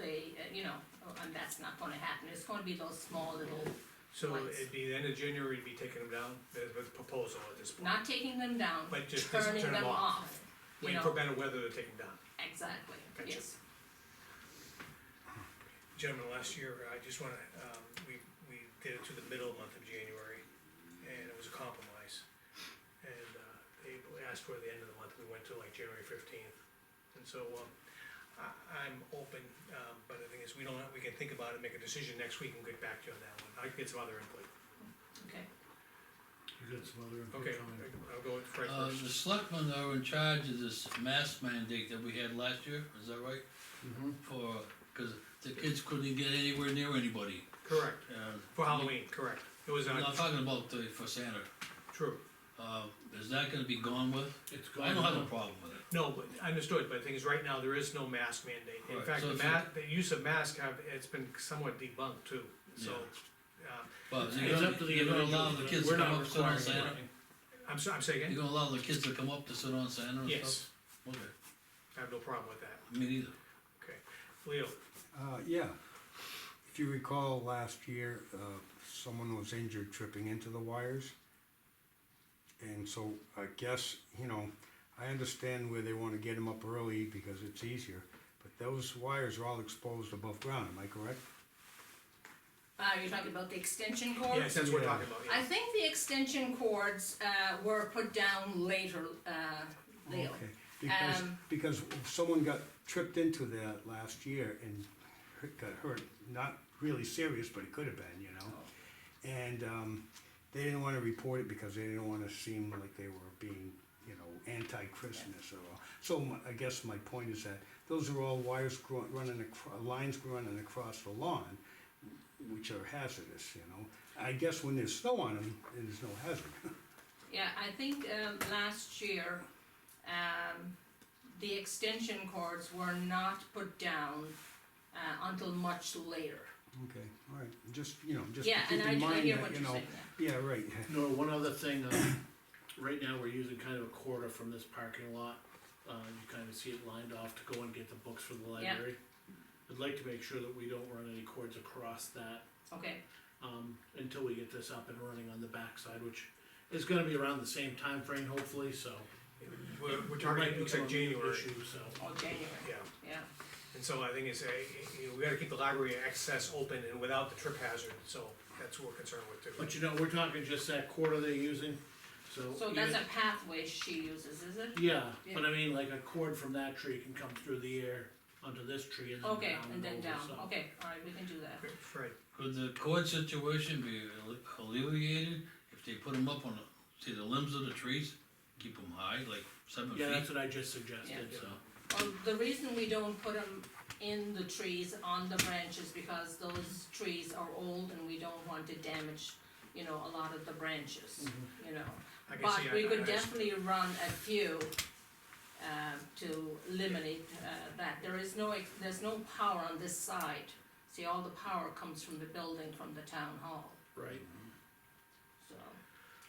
uh, you know, oh, and that's not gonna happen, it's gonna be those small little, So Lights. it'd be the end of January, we'd be taking them down, that's the proposal at this point. not taking them down, But just- just turning turn 'em them off. off, you Waiting for know, better weather to take them down. exactly, Gotcha. yes. Gentlemen, last year, I just wanna, um, we, we did it to the middle month of January, and it was a compromise. And, uh, they asked for the end of the month, we went to like January fifteenth, and so, um, I, I'm open, um, but the thing is, we don't, we can think about it, make a decision next week and get back to you on that one, I can get some other input. Okay, You got some other input Okay, coming. I'll go with Fred Uh, first. the selectmen are in charge of this mask mandate that we had last year, is that right? Mhm. For, cause the kids couldn't get anywhere near anybody, Correct, uh. for Halloween, correct, it was, I'm uh, not talking about the, for Santa, true. uh, is that gonna be gone with? It's gone. I don't have a problem with it. No, but I understood, but the thing is, right now, there is no mask mandate, in Right, fact, so the it's ma, the use of mask have, it's been somewhat debunked too, so. uh, But you're It's up to gonna, the you're gonna allow the individual. kids We're to come not up, sit on requiring Santa? anything. I'm sorry, I'm saying You're again, gonna allow the kids to come up to sit on Santa and stuff? yes, Okay, I have no problem with that, me neither. okay, Leo, Uh, yeah. If you recall last year, uh, someone was injured tripping into the wires. And so I guess, you know, I understand where they wanna get them up early because it's easier, but those wires are all exposed above ground, am I correct? uh, you're talking about the extension cords? yes, that's what we're Yeah. talking about, I yeah, think the extension cords, uh, were put down later, uh, Leo. Okay, Because, Um, because someone got tripped into that last year and hurt- got hurt, not really serious, but it could have been, you know? And, um, they didn't wanna report it because they didn't wanna seem like they were being, you know, anti-Christmas or, so my, I guess my point is that those are all wires gro- running acro- lines running across the lawn, which are hazardous, you know? I guess when there's snow on them, then there's no hazard. Yeah, I think, um, last year, um, the extension cords were not put down, uh, until much later. Okay, all right, just, you know, just to Yeah, and keep I, in I mind hear that, what you you're know, saying, yeah. yeah, right. No, one other thing, um, right now, we're using kind of a quarter from this parking lot, uh, you kinda see it lined off to go and get the books from the Yeah. library. I'd like to make sure that we don't run any cords across that, okay, um, until we get this up and running on the backside, which is gonna be around the same time frame, hopefully, so. we're, we're There might targeting, be looks like some January, issues, so. all January, yeah, yeah, and so I think it's, a- you know, we gotta keep the library access open and without the trip hazard, so that's what we're concerned with too. But you know, we're talking just that quarter they're using, Oh, so. so that's even- a pathway she uses, is it? Yeah, but Yeah. I mean, like a cord from that tree can come through the air onto this tree and then down. Okay, and then over, down, so. okay, all right, we can do that, Okay, Fred, Could the cord situation be alle- alleviated if they put them up on, the- see the limbs of the trees? Keep them high, like seven Yeah, feet? that's what I just suggested, Yeah. so. well, Um, the reason we don't put them in the trees, on the branches, because those trees are old and we don't want to damage, you know, a lot of the branches, you know. Mm-hmm. I can But see, I, we could I- I, definitely run a few, um, to eliminate, uh, that, there is no, ex- there's no power on this side. See, all the power comes from the building, from the town hall. Right, So,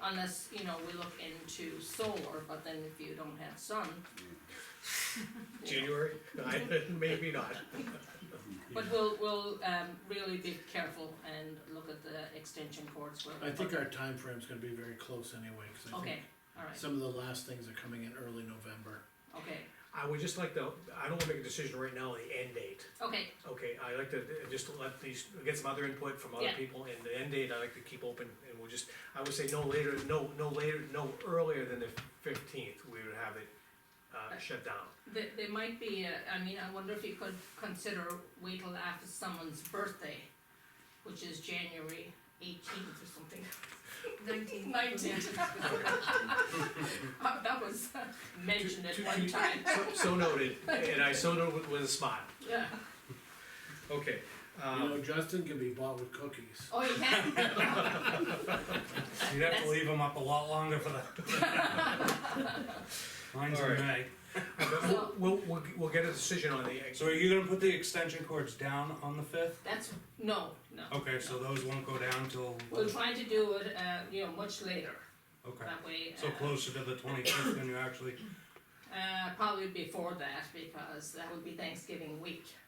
unless, you know, we look into solar, but then if you don't have sun. January, I- maybe not, But we'll, we'll, um, really be careful and look at the extension cords where. we I think put our them. time frame's gonna be very close anyway, cause I Okay, think alright, some of the last things are coming in early November. okay, I would just like to, I don't wanna make a decision right now on the end date. okay, Okay, I like to uh, just let these, get some other input from other Yeah. people, and the end date I like to keep open, and we'll just, I would say no later, no, no later, no earlier than the fifteenth, we would have it, uh, shut down. there, there might be, a- I mean, I wonder if you could consider wait till after someone's birthday, which is January eighteenth or something. Nineteen. Nineteenth. That was mentioned at Two- one two- time, So- So noted, and I so noted with- with a smile, yeah, okay, You know, um, Justin can be bought with cookies. oh, you can. You'd have to leave them up a lot longer for the. Mine's All in right. May. but we'll, we'll, we'll, we'll get a decision on the, So are you gonna put the extension cords down on the fifth? That's, no, no. Okay, so those won't go down till, We'll try to do it, uh, you know, much later, okay, that way. so uh, closer to the twenty-fifth than you actually, Uh, probably before that, because that would be Thanksgiving week.